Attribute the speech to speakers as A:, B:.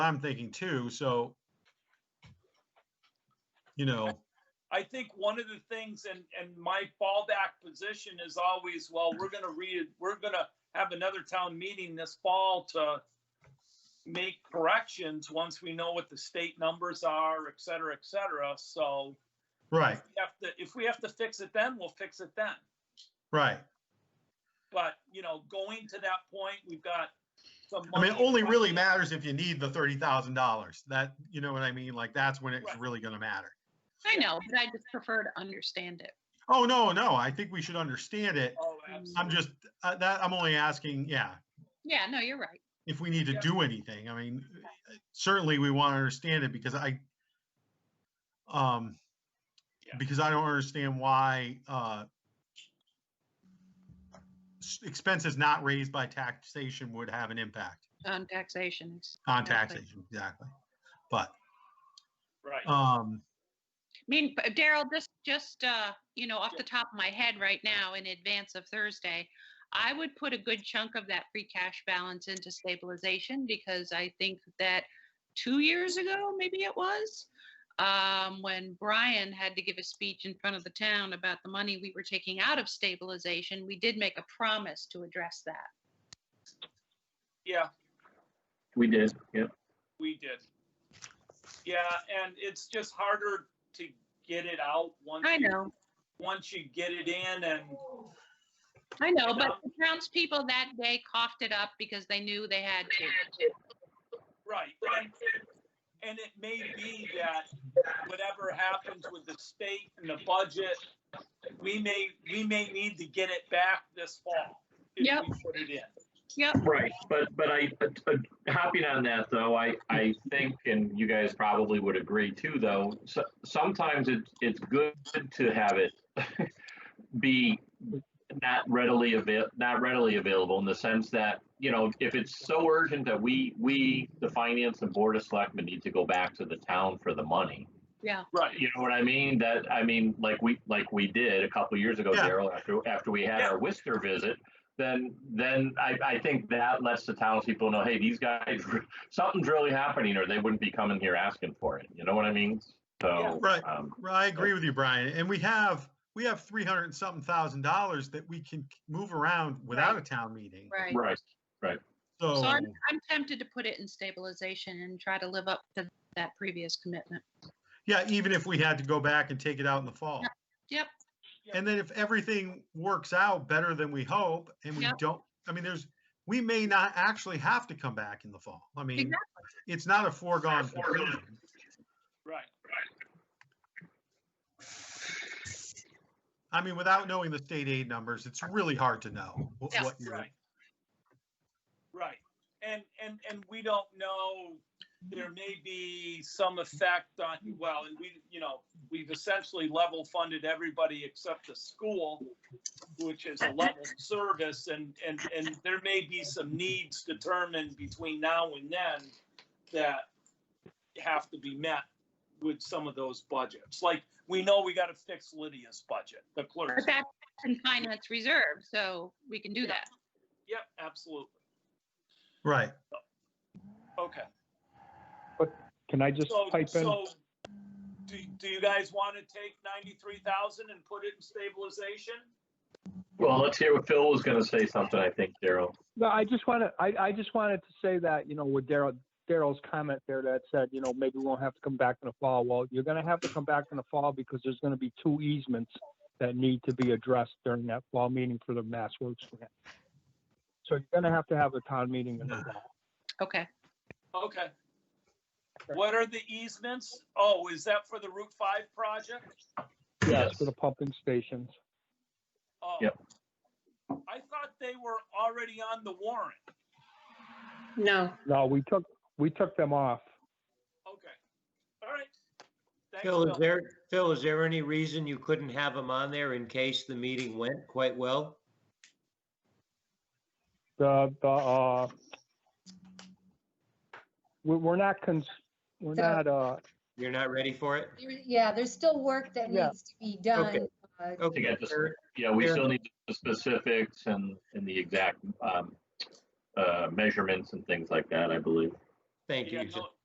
A: I'm thinking too, so. You know,
B: I think one of the things, and, and my fallback position is always, well, we're gonna read, we're gonna have another town meeting this fall to make corrections once we know what the state numbers are, et cetera, et cetera, so
A: right,
B: we have to, if we have to fix it then, we'll fix it then.
A: right.
B: But, you know, going to that point, we've got some.
A: I mean,
B: money-
A: only really matters if you need the thirty thousand dollars. That, you know what I mean? Like, that's when it's
B: Right.
A: really gonna matter.
C: I know, but I just prefer to understand it.
A: Oh, no, no, I think we should understand it.
B: Oh,
A: I'm
B: absolutely.
A: just, uh, that, I'm only asking, yeah,
C: Yeah, no, you're right.
A: if we need to
B: Yeah.
A: do anything. I mean, certainly we want to understand it because I, um,
B: Yeah.
A: because I don't understand why, uh, s- expenses not raised by taxation would have an impact
C: On Um, taxation, it's-
A: on
C: Exactly.
A: taxation, exactly. But,
B: Right.
A: um,
C: I mean, but Daryl, just, just, uh, you know, off the top of my head right now, in advance of Thursday, I would put a good chunk of that free cash balance into stabilization because I think that two years ago, maybe it was, um, when Brian had to give a speech in front of the town about the money we were taking out of stabilization, we did make a promise to address that.
B: Yeah,
D: We did, yep.
B: We did. Yeah, and it's just harder to get it out once.
C: I
B: you-
C: know.
B: Once you get it in and,
C: I know,
B: know?
C: but the townspeople that day coughed it up because they knew they had to.
B: right, and, and it may be that whatever happens with the state and the budget, we may, we may need to get it back this fall. if
C: Yep.
B: we Put it in.
C: Yep,
D: Right, but, but I, but, but hopping on that though, I, I think, and you guys probably would agree too, though, so, sometimes it's, it's good to have it be not readily avail, not readily available in the sense that, you know, if it's so urgent that we, we, the finance and board of selectmen need to go back to the town for the money.
C: yeah,
B: Right,
D: You know what I mean? That, I mean, like we, like we did a couple years ago,
A: Yeah.
D: Daryl, after, after we had
B: Yeah.
D: our Worcester visit, then, then I, I think that lets the townspeople know, hey, these guys, something's really happening, or they wouldn't be coming here asking for it. You know what I mean?
B: Yeah.
D: So,
A: Right.
D: um,
A: Well, I agree with you, Brian, and we have, we have three hundred and something thousand dollars that we can k- move around without a town meeting.
C: right.
D: right,
A: So,
C: So I'm, I'm tempted to put it in stabilization and try to live up to that previous commitment.
A: yeah, even if we had to go back and take it out in the fall.
C: Yep.
B: Yep.
A: And then if everything works out better than we hope, and we
C: Yep.
A: don't, I mean, there's, we may not actually have to come back in the fall. I mean,
C: Exactly.
A: it's not a foregone conclusion.
B: right.
A: I mean, without knowing the state aid numbers, it's really hard to know wh-
C: Yeah.
A: what you're,
B: Right. Right, and, and, and we don't know, there may be some effect on, well, and we, you know, we've essentially level funded everybody except the school, which is a level service, and, and, and there may be some needs determined between now and then that have to be met with some of those budgets. Like, we know we gotta fix Lydia's budget, the
C: But
B: clerk's.
C: that's in finance reserve, so we can do that.
B: Yep, absolutely.
A: right.
B: Okay.
E: Can I just
B: So,
E: pipe in?
B: so, do, do you guys want to take ninety-three thousand and put it in stabilization?
D: well, let's hear what Phil was gonna say something, I think, Daryl.
E: No, I just want to, I, I just wanted to say that, you know, with Daryl, Daryl's comment there that said, you know, maybe we won't have to come back in the fall. Well, you're going to have to come back in the fall because there's going to be two easements that need to be addressed during that fall meeting for the Mass Works grant. So you're going to have to have a town meeting in the
A: Yeah.
E: fall.
C: Okay.
B: Okay. What are the easements? Oh, is that for the Route Five project?
D: Yes.
E: For the pumping stations.
B: Oh.
D: Yep.
B: I thought they were already on the warrant.
C: No.
E: No, we took, we took them off.
B: Okay. All right. Thanks,
F: Phil,
B: Bill.
F: is there, Phil, is there any reason you couldn't have him on there in case the meeting went quite well?
E: The, the, uh, we, we're not cons, we're
G: So-
E: not, uh,
F: You're not ready for it?
G: There- Yeah, there's still work that
E: Yeah.
G: needs to be done. uh,
D: To
F: Okay.
D: get this, yeah, we
F: Fair
D: still need the specifics and, and the exact, um, uh, measurements and things like that, I believe.
F: Thank
B: Yeah,
F: you.
B: no-